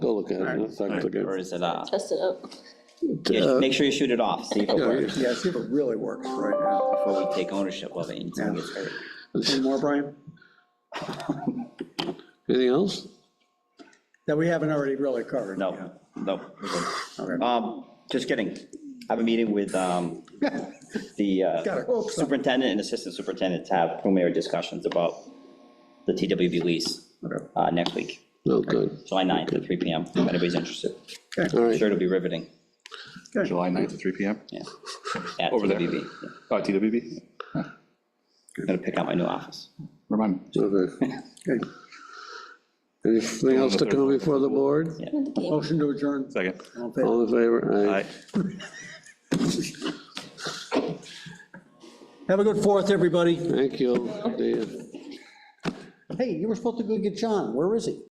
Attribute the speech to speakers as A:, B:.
A: I'll look at it, that's not
B: Or
A: good.
B: is it, uh,
C: Test it out.
A: Uh,
B: yeah, make sure you shoot it off, see if it works
D: Yeah, see if it E really works right now.
B: before we take ownership of it until it gets hurt.
D: Any more, Brian?
A: Anything else?
D: That we haven't already really covered? yeah.
B: No, no.
D: Okay.
B: Um, just kidding. I have a meeting with, um, the
D: Gotta
B: uh,
D: hope so.
B: superintendent and assistant superintendent to have preliminary discussions about the TWB lease,
D: Okay.
B: uh, next week,
A: No, good.
B: July 9th at three PM, if anybody's interested.
A: All
B: I'm
A: right,
B: Sure, it'll be riveting,
E: July 9th at 3 PM,
B: yeah. At
E: Over there.
B: TWB, yeah.
E: uh, TWB,
B: gonna pick out my new office.
E: remind me.
A: okay.
D: Okay.
A: Anything else to come before the board?
D: Motion to adjourn.
E: Second.
D: All in favor?
A: All in favor? Aye.
D: Have a good Fourth, everybody.
A: Thank you, Dan.
D: Hey, you were supposed to go get John. Where is he?